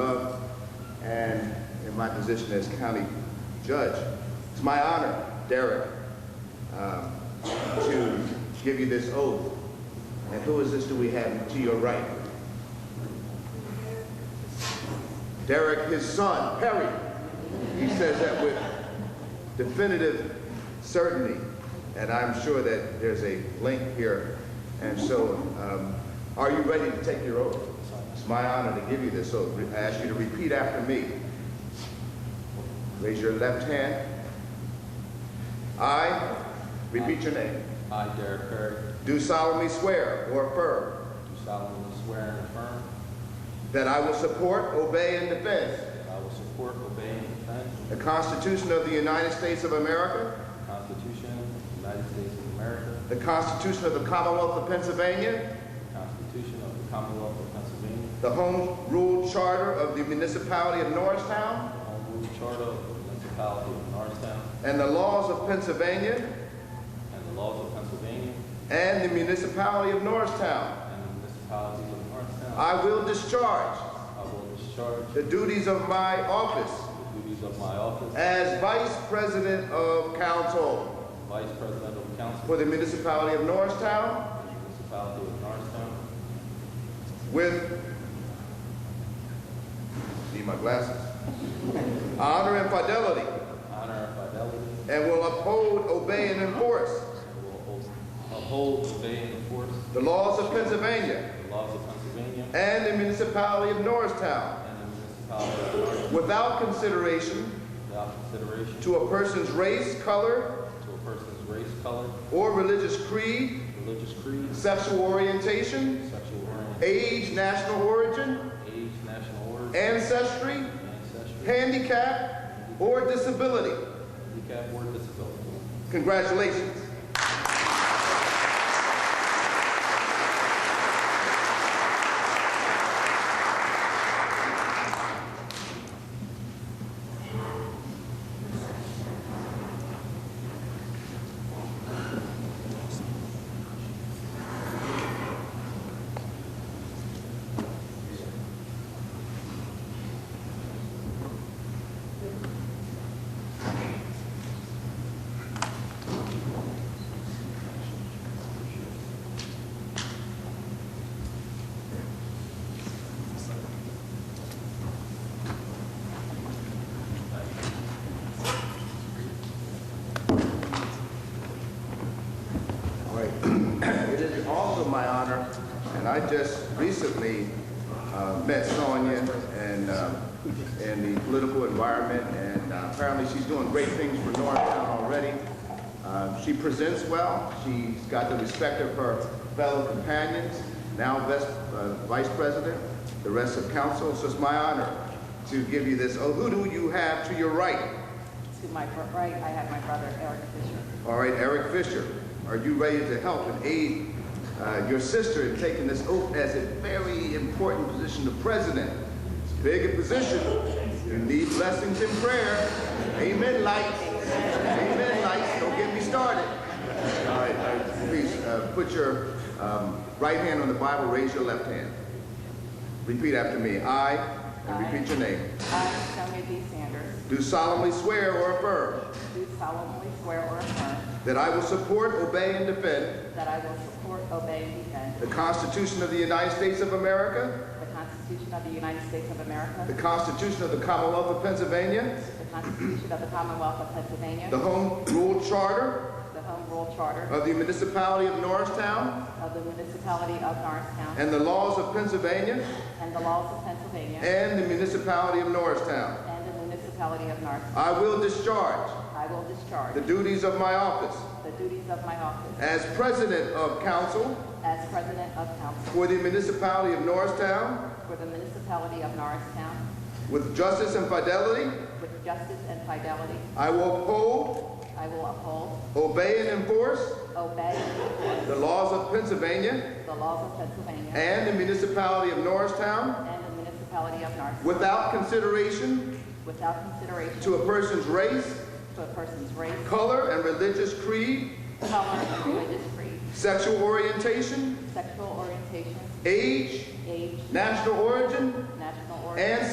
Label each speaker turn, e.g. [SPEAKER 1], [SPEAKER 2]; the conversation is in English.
[SPEAKER 1] love, and in my position as county judge. It's my honor, Derek, um, to give you this oath. And who is this do we have to your right? Derek, his son, Perry. He says that with definitive certainty, and I'm sure that there's a link here. And so, um, are you ready to take your oath? It's my honor to give you this oath. I ask you to repeat after me. Raise your left hand. I, repeat your name,
[SPEAKER 2] I, Derek Perry,
[SPEAKER 1] do solemnly swear or affirm
[SPEAKER 2] do solemnly swear and affirm
[SPEAKER 1] that I will support, obey, and defend
[SPEAKER 2] that I will support, obey, and defend
[SPEAKER 1] the Constitution of the United States of America,
[SPEAKER 2] the Constitution of the United States of America,
[SPEAKER 1] the Constitution of the Commonwealth of Pennsylvania,
[SPEAKER 2] the Constitution of the Commonwealth of Pennsylvania,
[SPEAKER 1] The Home Rule Charter of the Municipality of
[SPEAKER 2] the
[SPEAKER 1] Norristown
[SPEAKER 2] Home Rule Charter of the Municipality of Norristown,
[SPEAKER 1] and the laws of Pennsylvania
[SPEAKER 2] and the laws of Pennsylvania
[SPEAKER 1] and the Municipality of Norristown.
[SPEAKER 2] and the municipalities of Norristown.
[SPEAKER 1] I will discharge
[SPEAKER 2] I will discharge
[SPEAKER 1] the duties of my office
[SPEAKER 2] the duties of my office
[SPEAKER 1] as Vice President of Council
[SPEAKER 2] as Vice President of Council
[SPEAKER 1] for
[SPEAKER 2] of
[SPEAKER 1] the Municipality of Norristown
[SPEAKER 2] the Municipality of Norristown
[SPEAKER 1] with, need my glasses, honor and fidelity,
[SPEAKER 2] with honor and fidelity,
[SPEAKER 1] and will uphold, obey, and enforce
[SPEAKER 2] and will uphold, obey, and enforce
[SPEAKER 1] the laws of Pennsylvania
[SPEAKER 2] the laws of Pennsylvania
[SPEAKER 1] and the Municipality of Norristown.
[SPEAKER 2] and the municipality of Norristown
[SPEAKER 1] without consideration
[SPEAKER 2] without consideration
[SPEAKER 1] to a person's race, color,
[SPEAKER 2] to a person's race, color,
[SPEAKER 1] or religious creed,
[SPEAKER 2] religious creed,
[SPEAKER 1] sexual orientation,
[SPEAKER 2] sexual orientation,
[SPEAKER 1] age, national origin,
[SPEAKER 2] age, national origin,
[SPEAKER 1] ancestry,
[SPEAKER 2] ancestry,
[SPEAKER 1] handicap, or disability.
[SPEAKER 2] handicap, or disability.
[SPEAKER 1] Congratulations. All right. It is also my honor, and I just recently uh, met Sonia and, um, in the political environment, and uh, apparently she's doing great things for Norristown already. Uh, She presents well, she's got the respect of her fellow companions, now ves- uh, Vice President, the rest of council, so it's my honor to give you this. Oh, who do you have to your right?
[SPEAKER 3] To my br- right, I have my brother Eric Fisher.
[SPEAKER 1] All right, Eric Fisher, are you ready to help and aid uh, your sister in taking this oath as a very important position of president? It's a big position. You need blessings and prayer. Amen, lights. Amen, lights. Don't get me started. All right, all right, please uh, put your um, right hand on the Bible, raise your left hand. Repeat after me. I, and repeat your name,
[SPEAKER 3] I, Sonia D. Sanders,
[SPEAKER 1] do solemnly swear or affirm
[SPEAKER 3] do solemnly swear or affirm
[SPEAKER 1] that I will support, obey, and defend
[SPEAKER 3] that I will support, obey, and defend
[SPEAKER 1] The Constitution of the United States of America,
[SPEAKER 3] the Constitution of the United States of
[SPEAKER 1] the
[SPEAKER 3] America,
[SPEAKER 1] Constitution of the Commonwealth of Pennsylvania,
[SPEAKER 3] the Constitution of the Commonwealth of
[SPEAKER 1] the
[SPEAKER 3] Pennsylvania,
[SPEAKER 1] Home Rule Charter
[SPEAKER 3] the Home Rule Charter
[SPEAKER 1] of the Municipality of Norristown,
[SPEAKER 3] of the Municipality of Norristown,
[SPEAKER 1] and the laws of Pennsylvania
[SPEAKER 3] and the laws of Pennsylvania
[SPEAKER 1] and the Municipality of Norristown.
[SPEAKER 3] and the Municipality of Norristown.
[SPEAKER 1] I will discharge
[SPEAKER 3] I will discharge
[SPEAKER 1] the duties of my office
[SPEAKER 3] the duties of my office
[SPEAKER 1] as President of Council
[SPEAKER 3] as President of Council
[SPEAKER 1] for the Municipality of Norristown
[SPEAKER 3] for the Municipality of Norristown
[SPEAKER 1] with justice and fidelity.
[SPEAKER 3] with justice and fidelity.
[SPEAKER 1] I will uphold,
[SPEAKER 3] I will uphold,
[SPEAKER 1] obey, and enforce
[SPEAKER 3] obey,
[SPEAKER 1] the laws of Pennsylvania
[SPEAKER 3] The laws of Pennsylvania
[SPEAKER 1] and the Municipality of Norristown
[SPEAKER 3] and the municipality of Narsetown
[SPEAKER 1] without consideration
[SPEAKER 3] without consideration
[SPEAKER 1] to a person's race,
[SPEAKER 3] to a person's race,
[SPEAKER 1] color, and religious creed,
[SPEAKER 3] color, religious creed,
[SPEAKER 1] sexual orientation,
[SPEAKER 3] sexual orientation,
[SPEAKER 1] age,
[SPEAKER 3] age,
[SPEAKER 1] national origin,
[SPEAKER 3] national origin,
[SPEAKER 1] and